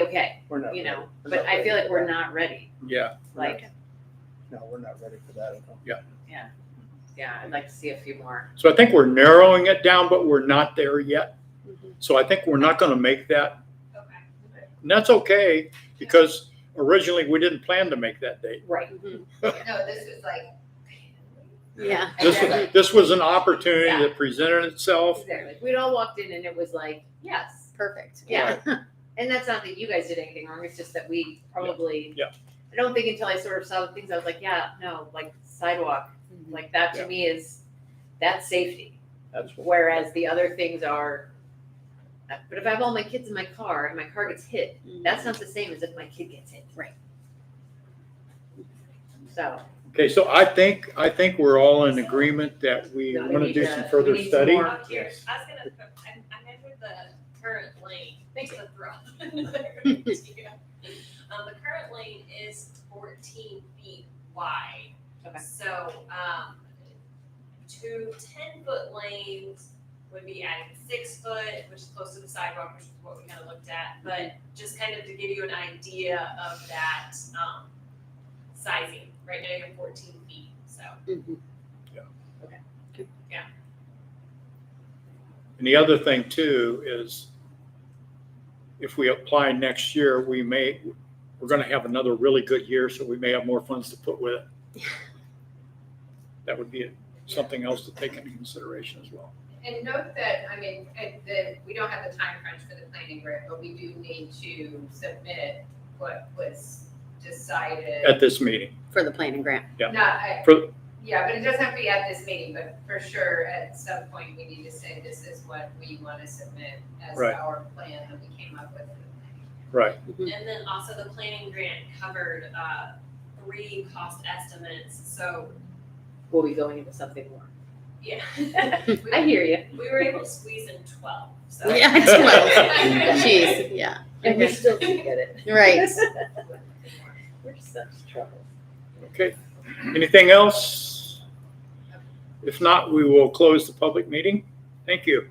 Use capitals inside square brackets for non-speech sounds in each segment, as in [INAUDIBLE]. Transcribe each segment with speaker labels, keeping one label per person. Speaker 1: okay,
Speaker 2: We're not
Speaker 1: you
Speaker 2: ready.
Speaker 1: know,
Speaker 2: We're
Speaker 1: but
Speaker 2: not
Speaker 1: I feel
Speaker 2: ready
Speaker 1: like
Speaker 2: for
Speaker 1: we're
Speaker 2: that.
Speaker 1: not ready,
Speaker 3: Yeah,
Speaker 1: like,
Speaker 2: No, we're not ready for that at all.
Speaker 1: yeah, I'd like to see a few more.
Speaker 3: so I think we're narrowing it down, but we're not there yet.
Speaker 1: Mhm.
Speaker 3: So I think we're not gonna make that.
Speaker 4: Okay.
Speaker 3: And that's okay, because originally we didn't plan to make that date.
Speaker 1: Right.
Speaker 4: No, this was like.
Speaker 1: Yeah. [LAUGHS]
Speaker 3: This,
Speaker 1: Exactly.
Speaker 3: this was an opportunity that presented itself.
Speaker 1: Exactly. We'd all walked in and it was like, yes,
Speaker 5: Perfect.
Speaker 1: yeah. And that's not that you guys did anything wrong, it's just that we probably.
Speaker 3: Yeah.
Speaker 1: I don't think until I sort of saw the things, I was like, yeah, no, like sidewalk,
Speaker 2: Mm-hmm.
Speaker 1: like that to
Speaker 3: Yeah.
Speaker 1: me is, that's safety.
Speaker 3: That's what-
Speaker 1: Whereas the other things are, but if I have all my kids in my car and my car gets hit, that's not the same as if my kid gets hit.
Speaker 5: Mm-hmm. Right.
Speaker 1: So.
Speaker 3: Okay, so I think, I think we're all in agreement that we
Speaker 1: Yeah, we
Speaker 3: wanna
Speaker 1: need
Speaker 3: do
Speaker 1: to-
Speaker 3: some
Speaker 1: we
Speaker 3: further
Speaker 1: need some
Speaker 3: study.
Speaker 1: more-
Speaker 4: I'm curious, I was gonna, I, I measured the current lane, thanks for the [LAUGHS] throw. Um, the current lane is fourteen feet wide.
Speaker 1: Okay.
Speaker 4: So, um, two ten-foot lanes would be adding six foot, which is close to the sidewalk, which is what we kind of looked at. But just kind of to give you an idea of that, um, sizing, right now you're fourteen feet, so.
Speaker 3: And the other thing too is if we apply next year, we may, we're gonna have another really good year, so we may have more funds to put with it. That would be something else to take into consideration as well.
Speaker 6: And note that, I mean, and that we don't have a time crunch for the planning grant, but we do need to submit what was decided.
Speaker 3: At this meeting,
Speaker 5: [LAUGHS] For the planning grant.
Speaker 3: yeah.
Speaker 6: Not, I-
Speaker 3: For-
Speaker 6: yeah, but it doesn't have to be at this meeting, but for sure, at some point, we need to say this is what we want to submit as
Speaker 3: Right.
Speaker 6: our plan that we came up with. for the
Speaker 3: right,
Speaker 4: And then also the planning grant covered, uh, three cost estimates, so,
Speaker 1: We'll be going into something more.
Speaker 4: yeah. [LAUGHS]
Speaker 1: I hear you.
Speaker 4: We were able to squeeze in twelve, so.
Speaker 5: Yeah,
Speaker 1: [LAUGHS]
Speaker 5: it's [LAUGHS] twelve. Jeez, yeah.
Speaker 1: And we still didn't get it.
Speaker 5: [LAUGHS] Right.
Speaker 1: [LAUGHS] We're such trouble.
Speaker 3: okay. Anything else? If not, we will close the public meeting. Thank you.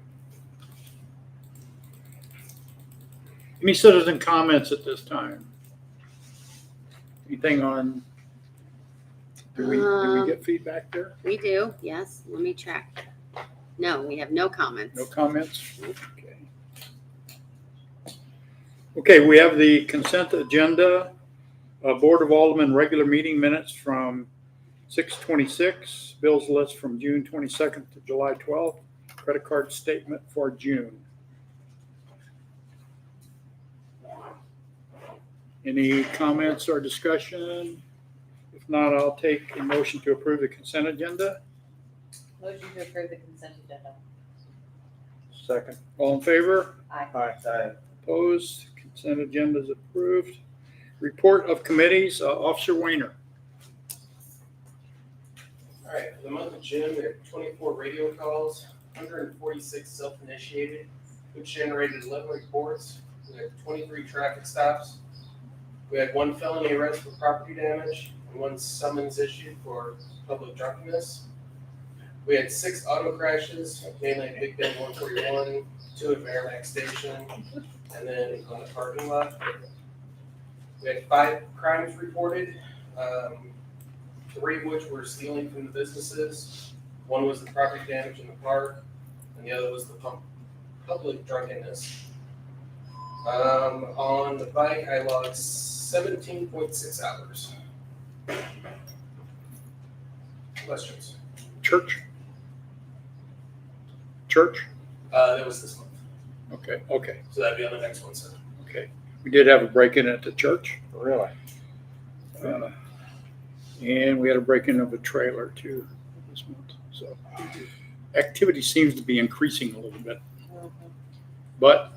Speaker 3: Any citizen comments at this time? Anything on? Do we, do we
Speaker 5: Um,
Speaker 3: get feedback there?
Speaker 5: We do, yes. Let me check. No, we have no comments.
Speaker 3: No comments? Okay. Okay, we have the consent agenda, uh, Board of Aldermen regular meeting minutes from six twenty-six, bills list from June twenty-second to July twelfth, credit card statement for June. Any comments or discussion? If not, I'll take a motion to approve the consent agenda.
Speaker 1: Motion to approve the consent agenda.
Speaker 2: Second.
Speaker 3: All in favor?
Speaker 2: Aye. Aye.
Speaker 3: Opposed, consent agenda is approved. Report of committees, uh, Officer Weiner.
Speaker 7: All right, for the month of June, we had twenty-four radio calls, hundred and forty-six self-initiated, which generated eleven reports. We had twenty-three traffic stops. We had one felony arrest for property damage and one summons issued for public drunkenness. We had six auto crashes, mainly at Big Bend one forty-one, two at Merrimack Station, and then on the parking lot. We had five crimes reported, um, three of which were stealing from the businesses. One was the property damage in the park, and the other was the pub- public drunkenness. Um, on the bike, I logged seventeen point six hours. Questions?
Speaker 3: Church? Church?
Speaker 7: Uh, that was this month,
Speaker 3: Okay, okay,
Speaker 7: so that'd be on the next one, so.
Speaker 3: okay. We did have a break-in at the church.
Speaker 2: Really?
Speaker 3: uh, And we had a break-in of a trailer too this month, so. Activity seems to be increasing a little bit, but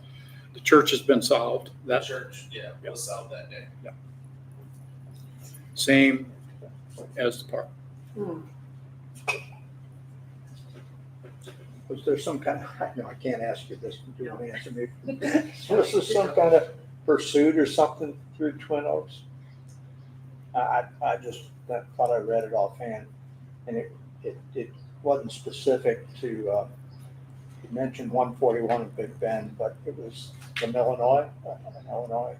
Speaker 3: the church has been solved.
Speaker 7: The
Speaker 3: That's
Speaker 7: church, yeah, was solved that day.
Speaker 3: same as the park.
Speaker 2: Was there some kind of, [LAUGHS] no, I can't ask you this, you don't answer
Speaker 1: [LAUGHS]
Speaker 2: me. [LAUGHS] Was there some kind of pursuit or something through Twin Oaks? I, I, I just, I thought I read it offhand, and it, it, it wasn't specific to, uh, you mentioned one forty-one in Big Bend, but it was from Illinois, uh, Illinois,